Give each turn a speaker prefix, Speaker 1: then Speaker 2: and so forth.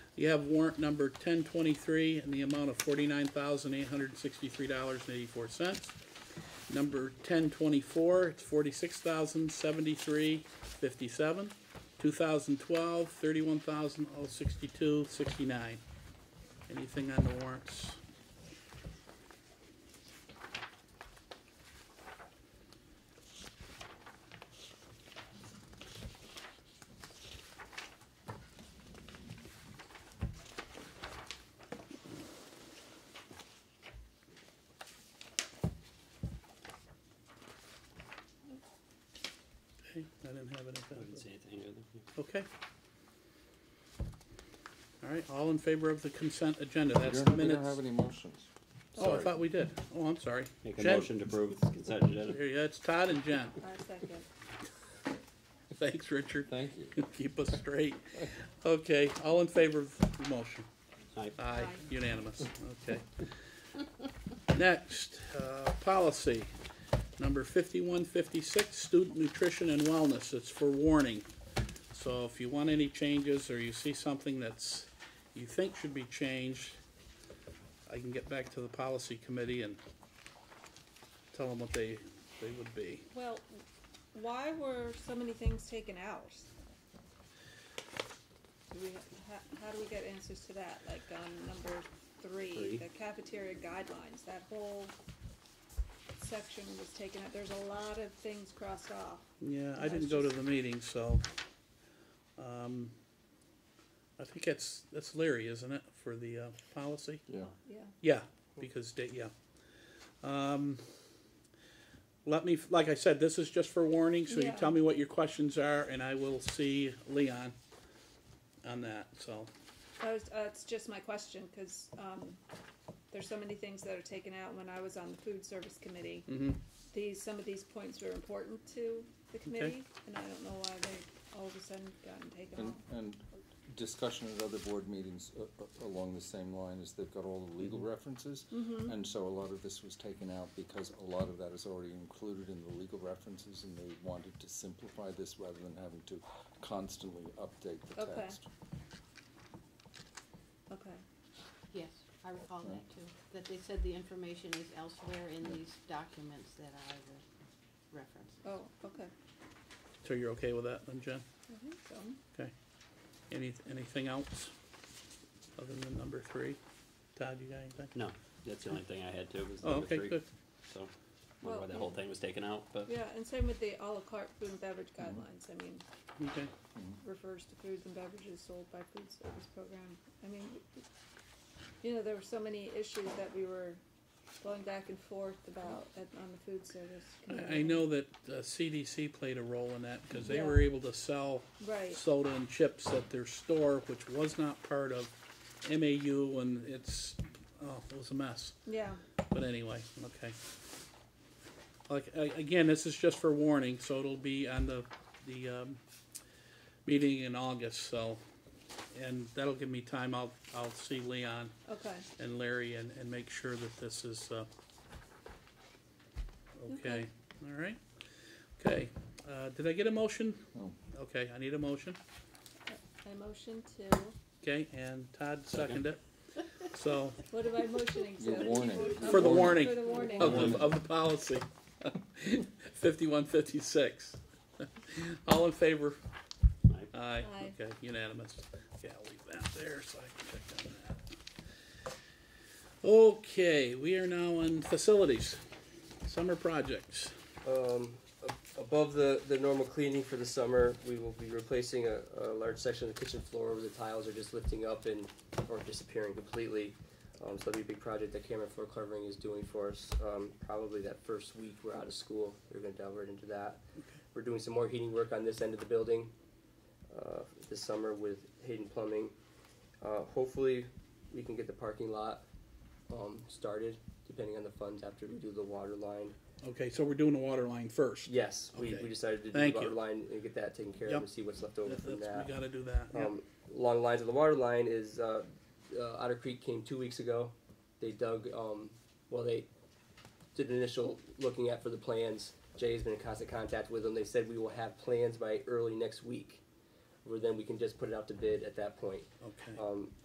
Speaker 1: You have warrant number ten twenty-three in the amount of forty-nine thousand eight hundred and sixty-three dollars and eighty-four cents. Number ten twenty-four, it's forty-six thousand seventy-three fifty-seven. Two thousand twelve, thirty-one thousand oh sixty-two sixty-nine. Anything on the warrants? Okay, I didn't have anything.
Speaker 2: I didn't see anything either.
Speaker 1: Okay. All right, all in favor of the consent agenda, that's the
Speaker 3: We don't have
Speaker 1: minutes.
Speaker 3: any motions.
Speaker 1: Oh, I
Speaker 2: Sorry.
Speaker 1: thought we did. Oh, I'm sorry.
Speaker 2: Make a
Speaker 1: Jen-
Speaker 2: motion to approve the consent agenda.
Speaker 1: Here, yeah, it's Todd and Jen.
Speaker 4: I second.
Speaker 1: Thanks, Richard.
Speaker 3: Thank you.
Speaker 1: Keep us straight. Okay, all in favor of the motion?
Speaker 2: Aye.
Speaker 1: Aye,
Speaker 4: Aye.
Speaker 1: unanimous, okay. Next, uh, policy, number fifty-one fifty-six, student nutrition and wellness, it's for warning. So if you want any changes, or you see something that's, you think should be changed, I can get back to the policy committee and tell them what they, they would be.
Speaker 4: Well, why were so many things taken out? Do we, how, how do we get answers to that? Like on number
Speaker 2: Three.
Speaker 4: three, the cafeteria guidelines, that whole section was taken out. There's a lot of things crossed off.
Speaker 1: Yeah, I
Speaker 4: That's
Speaker 1: didn't go to
Speaker 4: just-
Speaker 1: the meeting, so, um, I think that's, that's Larry, isn't it, for the, uh, policy?
Speaker 3: Yeah.
Speaker 4: Yeah.
Speaker 1: Yeah, because, da- yeah. Um, let me, like I said, this is just for warning, so you
Speaker 4: Yeah.
Speaker 1: tell me what your questions are, and I will see Leon on that, so,
Speaker 4: That was, uh, it's just my question, cause, um, there's so many things that are taken out. When I was on the food service committee,
Speaker 1: mhm.
Speaker 4: these, some of these points were important to the committee, and I don't know why they all of a sudden gotten
Speaker 1: Mm.
Speaker 4: taken
Speaker 3: And,
Speaker 4: off.
Speaker 3: and discussion at other board meetings a- a- along the same line is they've got all the legal references. And so a lot of this was taken out because a lot of that is already included in the legal references and they wanted to simplify this rather than having to constantly update the
Speaker 4: Okay.
Speaker 3: text.
Speaker 4: Okay,
Speaker 5: Yes, I recall that too, that they said the information is elsewhere in these documents that I re- referenced.
Speaker 4: oh, okay,
Speaker 1: so you're okay with that, then, Jen?
Speaker 4: I think so.
Speaker 1: Okay. Any, anything else other than number three? Todd, you got anything?
Speaker 2: No, that's the only thing I had too, was
Speaker 1: Oh,
Speaker 2: number
Speaker 1: okay,
Speaker 2: three.
Speaker 1: good.
Speaker 2: So, wonder why
Speaker 4: Well,
Speaker 2: the whole thing was taken out, but
Speaker 4: Yeah, and same with the à la carte food and beverage
Speaker 1: Mm-hmm.
Speaker 4: guidelines, I mean,
Speaker 1: Okay.
Speaker 4: refers to foods and beverages sold by food service program, I mean, you know, there were so many issues that we were going back and forth about at, on the food service
Speaker 1: I-
Speaker 4: committee.
Speaker 1: I know that uh, CDC played a role in that, because they
Speaker 4: Yeah.
Speaker 1: were able to sell
Speaker 4: Right,
Speaker 1: soda and chips at their store, which was not part of MAU, and it's, oh, it was a mess.
Speaker 4: yeah,
Speaker 1: But anyway, okay. Like, a- again, this is just for warning, so it'll be on the, the, um, meeting in August, so. And that'll give me time, I'll, I'll see Leon
Speaker 4: okay,
Speaker 1: and Larry and, and make sure that this is, uh, okay,
Speaker 4: Okay.
Speaker 1: all right? Okay, uh, did I get a motion?
Speaker 3: No.
Speaker 1: Okay, I need a motion,
Speaker 4: I motion to,
Speaker 1: okay, and Todd seconded it. So,
Speaker 4: what am I motioning to?
Speaker 3: Your warning.
Speaker 1: for the
Speaker 4: Okay,
Speaker 1: warning Oh,
Speaker 4: For the warning.
Speaker 1: of the, of the policy, fifty-one fifty-six. All in favor?
Speaker 2: I
Speaker 1: Aye,
Speaker 4: Aye.
Speaker 1: okay, unanimous. Okay, I'll leave that there so I can check on that. Okay, we are now on facilities, summer projects.
Speaker 6: Um, ab- above the, the normal cleaning for the summer, we will be replacing a, a large section of the kitchen floor where the tiles are just lifting up and, or disappearing completely. Um, so that'll be a big project that Cameron Floor Covering is doing for us, um, probably that first week we're out of school, we're gonna delve right into that. We're doing some more heating work on this end of the building, uh, this summer with Hayden Plumbing. Uh, hopefully, we can get the parking lot, um, started, depending on the funds after we do the water line.
Speaker 1: Okay, so we're doing the water line first.
Speaker 6: Yes, we,
Speaker 1: Okay.
Speaker 6: we decided to do
Speaker 1: Thank
Speaker 6: the water
Speaker 1: you.
Speaker 6: line and get that taken care of
Speaker 1: Yep.
Speaker 6: and see what's left over
Speaker 1: That-
Speaker 6: from
Speaker 1: that's-
Speaker 6: that.
Speaker 1: We gotta do that, yeah.
Speaker 6: Um, along the lines of the water line is uh, uh, Otter Creek came two weeks ago. They dug, um, well, they did an initial looking at for the plans. Jay has been in constant contact with them. They said we will have plans by early next week, where then we can just put it out to bid at that point.
Speaker 1: Okay,
Speaker 6: Um,